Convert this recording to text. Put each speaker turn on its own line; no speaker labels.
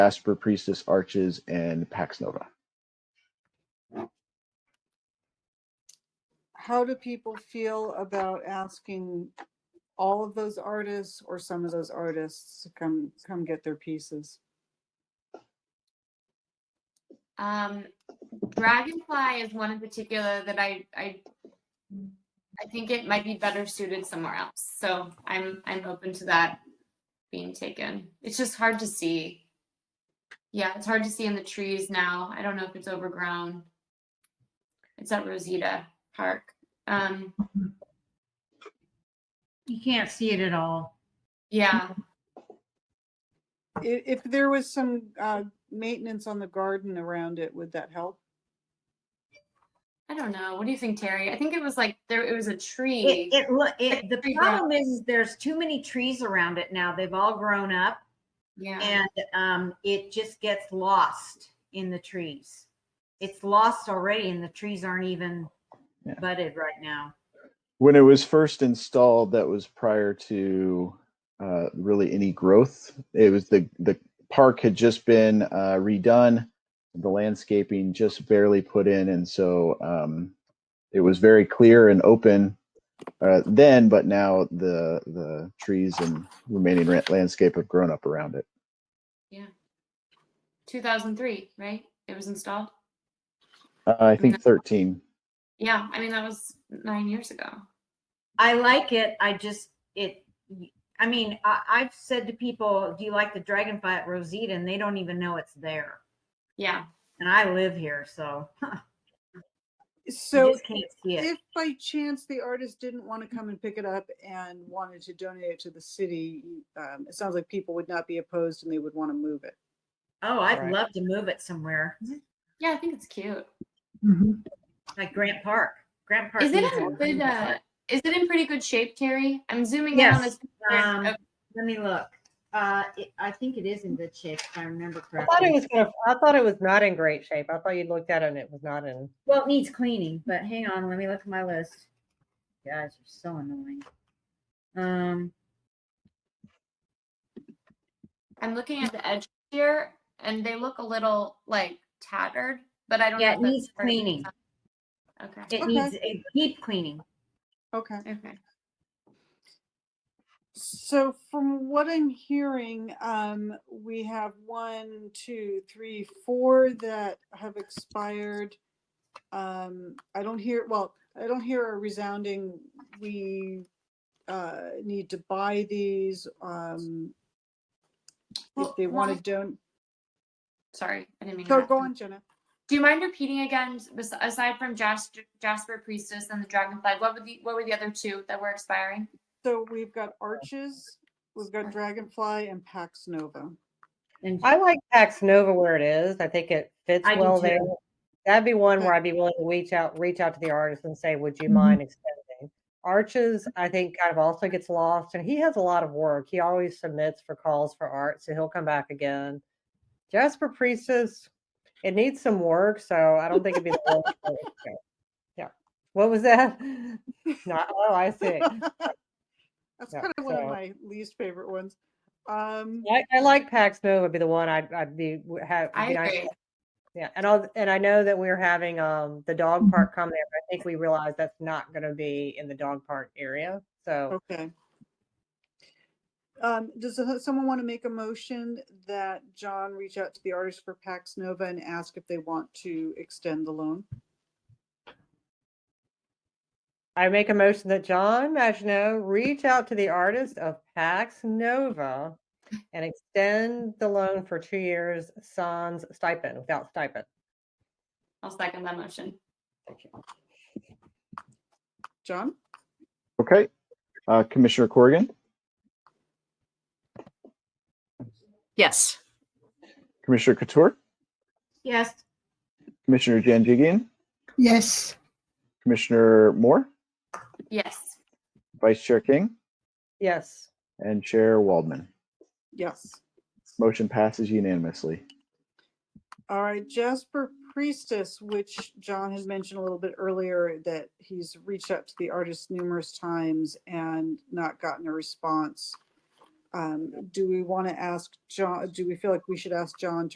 Jasper Priestess Arches, and Pax Nova.
How do people feel about asking all of those artists or some of those artists to come, come get their pieces?
Um, Dragonfly is one in particular that I, I, I think it might be better suited somewhere else. So I'm, I'm open to that being taken. It's just hard to see. Yeah, it's hard to see in the trees now. I don't know if it's overgrown. It's at Rosita Park. Um,
You can't see it at all.
yeah,
If, if there was some, uh, maintenance on the garden around it, would that help?
I don't know. What do you think, Terry? I think it was like there, it was a tree.
It, it, lo- it, the
Tree
problem is, is there's too many trees around it now. They've all grown up
Yeah,
and, um, it just gets lost in the trees. It's lost already and the trees aren't even
Yeah.
budded right now.
When it was first installed, that was prior to uh, really any growth. It was the the park had just been uh, redone, the landscaping just barely put in, and so um, it was very clear and open uh, then. But now the the trees and remaining ra- landscape have grown up around it.
two thousand three, right? It was installed.
Uh, I think thirteen.
Yeah, I mean that was nine years ago.
I like it. I just, it, I mean, I, I've said to people, do you like the dragonfly at Rosita? And they don't even know it's there.
Yeah,
And I live here, so you
So
just can't see it.
if by chance the artist didn't want to come and pick it up and wanted to donate it to the city, um, it sounds like people would not be opposed and they would want to move it.
Oh, I'd
Right.
love to move it somewhere,
yeah, I think it's cute.
like Grant Park. Grant Park.
Is it
needs
in
one.
good? Uh, is it in pretty good shape, Terry? I'm zooming in on
Yes,
this. picture.
um,
Oh,
Let me look. Uh, it, I think it is in good shape if I remember
I thought
correctly.
it was gonna, I thought it was not in great shape. I thought you looked at it and it was not in.
Well, it needs cleaning, but hang on, let me look at my list. You Guys are so annoying. Um,
I'm looking at the edge here, and they look a little like tattered, but I don't.
Yeah,
know
it
if that's
needs
part of the
cleaning.
design. Okay.
it
Okay.
needs a deep cleaning.
Okay.
Okay.
So from what I'm hearing, um, we have one, two, three, four that have expired. Um, I don't hear, well, I don't hear a resounding, we, uh, need to buy these, um, if
Well,
they want
why-
to don't,
Sorry, I didn't mean. to
go,
interrupt
go
you.
on, Jenna.
Do you mind repeating again? bes- Aside from Jas- Jasper Priestess and the Dragonfly, what were the what were the other two that were expiring?
So we've got Arches, we've got Dragonfly and Pax Nova.
And
I like Pax Nova where it is. I think it fits
I do
well
too.
there. That'd be one where I'd be willing to reach out, reach out to the artist and say, would you
Mm-hmm.
mind extending? Arches, I think kind of also gets lost and he has a lot of work. He always submits for calls for art, so he'll come back again. Jasper Priestess, it needs some work, so I don't think it'd be the worst. one to go. Yeah. What was that? Not, oh, I see.
That's
Yeah,
kind of one of
so-
my least favorite ones. Um,
I, I like Pax Nova would be the one I'd, I'd be w- have.
I
be nice to
agree.
Yeah, and I'll, and I know that we're having um the dog park come there, but I think we realize that's not going to be in the dog park area. So
Okay. Um, does so- someone want to make a motion that John reach out to the artist for Pax Nova and ask if they want to extend the loan?
I make a motion that John Maginot reach out to the artist of Pax Nova and extend the loan for two years sans stipend without stipend.
I'll second that motion.
John?
Okay, uh, Commissioner Corrigan,
Yes.
Commissioner Couture,
yes,
Commissioner Janjigian,
Yes.
Commissioner Moore,
Yes.
Vice Chair King,
Yes.
and Chair Waldman.
Yes.
Motion passes unanimously.
All right, Jasper Priestess, which John had mentioned a little bit earlier, that he's reached out to the artist numerous times and not gotten a response. um, do we want to ask John, do we feel like we should ask John